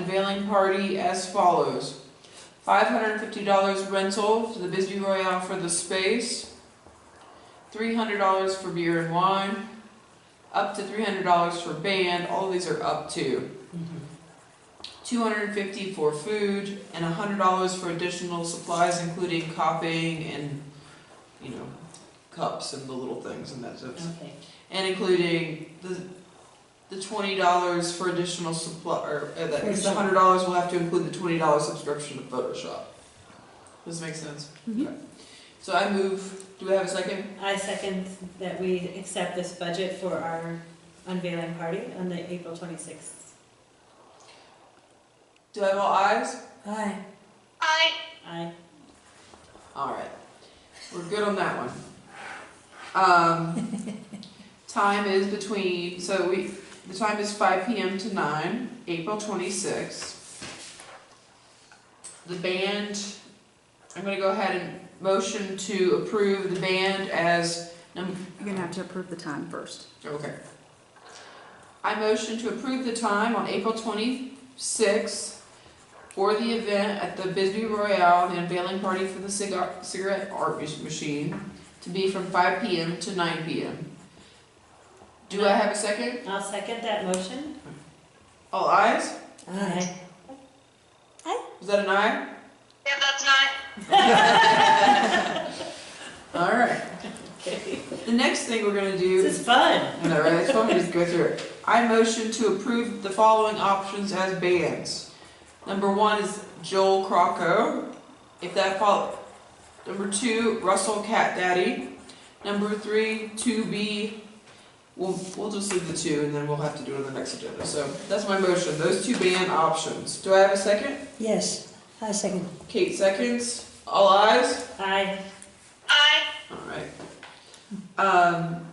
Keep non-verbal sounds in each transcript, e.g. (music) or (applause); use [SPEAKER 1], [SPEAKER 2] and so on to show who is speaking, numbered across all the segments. [SPEAKER 1] wine party as follows. Five hundred and fifty dollars rental to the Bisbee Royale for the space. Three hundred dollars for beer and wine. Up to three hundred dollars for band, all these are up to.
[SPEAKER 2] Mm-hmm.
[SPEAKER 1] Two hundred and fifty for food and hundred dollars for additional supplies, including copying and, you know, cups and the little things and that stuff
[SPEAKER 2] Okay,
[SPEAKER 1] and including the the twenty dollars for additional supply, or uh, that extra hundred dollars will have to include the twenty dollar subscription to Photoshop. Does this make sense?
[SPEAKER 3] Mhm.
[SPEAKER 1] Okay. So I move. Do we have a second?
[SPEAKER 2] I second that we accept this budget for our unveiling party on the April twenty-sixth.
[SPEAKER 1] Do I have all eyes?
[SPEAKER 3] Aye.
[SPEAKER 2] Aye.
[SPEAKER 1] All right, we're good on that one. Um, time is between so we the time is five p.m. to nine, April twenty sixth. The band I'm gonna go ahead and motion to approve the band as, num-
[SPEAKER 3] You're gonna have to approve the time first.
[SPEAKER 1] okay. I motion to approve the time on April twenty-sixth for the event at the Bisbee Royale, the unveiling party for the cigar, cigarette art mach- machine, to be from five P M to nine P M. Do I have a second?
[SPEAKER 2] I'll second that motion.
[SPEAKER 1] All ayes?
[SPEAKER 2] Aye.
[SPEAKER 1] Is that an aye?
[SPEAKER 4] Yeah, that's not.
[SPEAKER 1] All right. (laughs) The next thing we're gonna do.
[SPEAKER 2] This is fun.
[SPEAKER 1] I know, right? I just want me to just go through it. I motion to approve the following options as bands. Number one is Joel Crocco, if that follow. Number two, Russell Cat Daddy. Number three, Two B. We'll, we'll just leave the two and then we'll have to do it on the next agenda. So that's my motion, those two band options. Do I have a second?
[SPEAKER 5] Yes, I second.
[SPEAKER 1] Kate seconds. All eyes.
[SPEAKER 2] Aye.
[SPEAKER 4] I.
[SPEAKER 1] Alright. Um,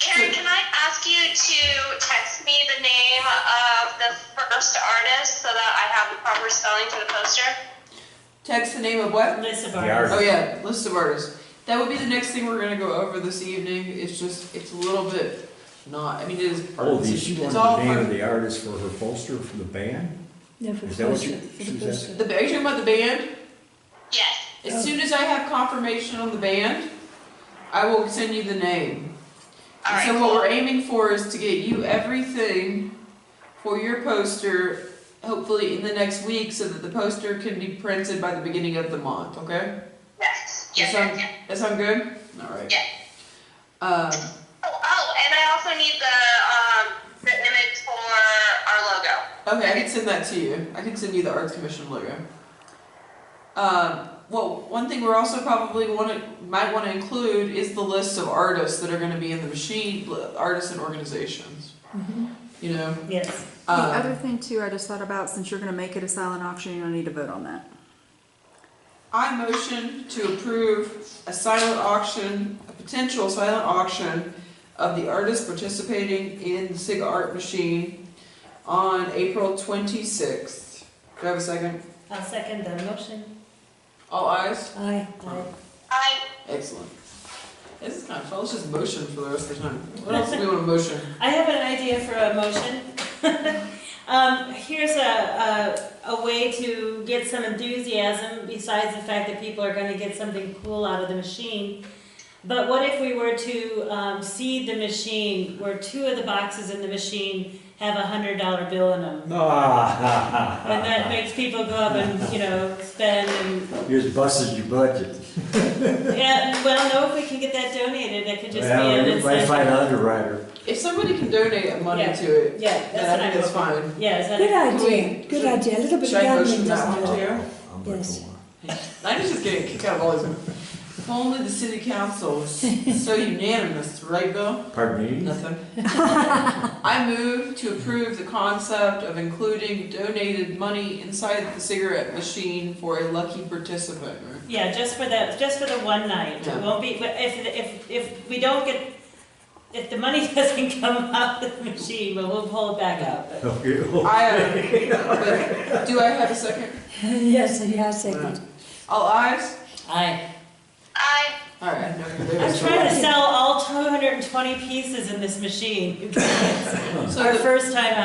[SPEAKER 4] Karen, can I ask you to text me the name of the first artist so that I have the proper spelling for the poster?
[SPEAKER 1] text the name of what?
[SPEAKER 2] List of
[SPEAKER 6] The
[SPEAKER 2] artists.
[SPEAKER 1] Oh yeah, list of artists. That would be the next thing we're gonna go over this evening. It's just, it's a little bit not, I mean, it is.
[SPEAKER 6] Oh, the, she
[SPEAKER 1] it's
[SPEAKER 6] wanted
[SPEAKER 1] all
[SPEAKER 6] the name
[SPEAKER 1] part-
[SPEAKER 6] of the artist for her poster for the band?
[SPEAKER 5] No, for
[SPEAKER 6] Is
[SPEAKER 5] the
[SPEAKER 6] that what you-
[SPEAKER 5] poster, for
[SPEAKER 6] she
[SPEAKER 5] the
[SPEAKER 6] was
[SPEAKER 5] poster.
[SPEAKER 1] The, are you talking about the band?
[SPEAKER 4] Yes.
[SPEAKER 1] As soon as I have confirmation on the band, I will send you the name.
[SPEAKER 4] All right.
[SPEAKER 1] And so what we're
[SPEAKER 4] cool.
[SPEAKER 1] aiming for is to get you everything for your poster, hopefully in the next week, so that the poster can be printed by the beginning of the month, okay?
[SPEAKER 4] Yes.
[SPEAKER 1] That
[SPEAKER 4] Yes.
[SPEAKER 1] sound,
[SPEAKER 4] yes, yes.
[SPEAKER 1] that sound good? Alright.
[SPEAKER 4] Yeah.
[SPEAKER 1] Um,
[SPEAKER 4] Oh, oh, and I also need the um the image for our logo.
[SPEAKER 1] Okay, I can send that to you. I can send you the Arts Commission logo. Um, well, one thing we're also probably want to might want to include is the list of artists that are going to be in the machine, li- artists and organizations. You know,
[SPEAKER 2] Yes.
[SPEAKER 3] Mm-hmm. The other
[SPEAKER 1] um,
[SPEAKER 3] thing too, I just thought about, since you're gonna make it a silent auction, you don't need to vote on that.
[SPEAKER 1] I motion to approve a silent auction, a potential silent auction of the artists participating in the Sig Art Machine on April twenty sixth. Do I have a second?
[SPEAKER 2] I'll second that motion.
[SPEAKER 1] All eyes.
[SPEAKER 5] Aye.
[SPEAKER 2] Aye.
[SPEAKER 4] I.
[SPEAKER 1] Excellent. This is kind of fun. Let's just motion for the rest of the time. What else do we want to motion?
[SPEAKER 2] I have an idea for a motion. (laughs) Um, here's a, a, a way to get some enthusiasm besides the fact that people are gonna get something cool out of the machine. But what if we were to, um, seed the machine, where two of the boxes in the machine have a hundred dollar bill in them? And that
[SPEAKER 6] Ah,
[SPEAKER 2] makes people go up and, you know, spend and,
[SPEAKER 6] (laughs) you just busted your budget.
[SPEAKER 2] yeah, well, no, if we can get that donated, that could just be an
[SPEAKER 6] Well, everybody find an
[SPEAKER 2] incentive.
[SPEAKER 6] underwriter.
[SPEAKER 1] If somebody can donate money to it,
[SPEAKER 2] Yeah,
[SPEAKER 1] then I think
[SPEAKER 2] that's
[SPEAKER 1] that's
[SPEAKER 2] what I'm,
[SPEAKER 1] fine.
[SPEAKER 2] yeah, is that?
[SPEAKER 5] Good
[SPEAKER 1] we-
[SPEAKER 5] idea, good
[SPEAKER 1] should-
[SPEAKER 5] idea. A little bit
[SPEAKER 1] Should
[SPEAKER 5] of
[SPEAKER 1] I motion
[SPEAKER 5] gambling
[SPEAKER 1] that
[SPEAKER 5] doesn't
[SPEAKER 1] one
[SPEAKER 5] hurt.
[SPEAKER 1] too?
[SPEAKER 6] I'm not
[SPEAKER 5] Yes.
[SPEAKER 6] gonna lie.
[SPEAKER 5] (laughs)
[SPEAKER 1] I'm just getting a kick out of all these. If only the city council was
[SPEAKER 5] (laughs)
[SPEAKER 1] so unanimous, right, Bill?
[SPEAKER 6] Pardon (laughs) me?
[SPEAKER 1] Nothing. I move to approve the concept of including donated money inside the cigarette machine for a lucky participant. right?
[SPEAKER 2] Yeah, just for the, just for the one night, it won't be, but if, if, if we don't get, if the money (laughs) doesn't come out of the machine, well, we'll pull it back out. but-
[SPEAKER 6] Okay.
[SPEAKER 2] (laughs)
[SPEAKER 1] I, uh, but do I have a second?
[SPEAKER 5] (laughs) Yes, yeah, I second.
[SPEAKER 1] All ayes?
[SPEAKER 2] I,
[SPEAKER 4] I.
[SPEAKER 1] All right. no, you're there.
[SPEAKER 2] I'm trying to sell all two hundred and twenty pieces in this machine,
[SPEAKER 1] So
[SPEAKER 2] our
[SPEAKER 1] the-
[SPEAKER 2] first time out.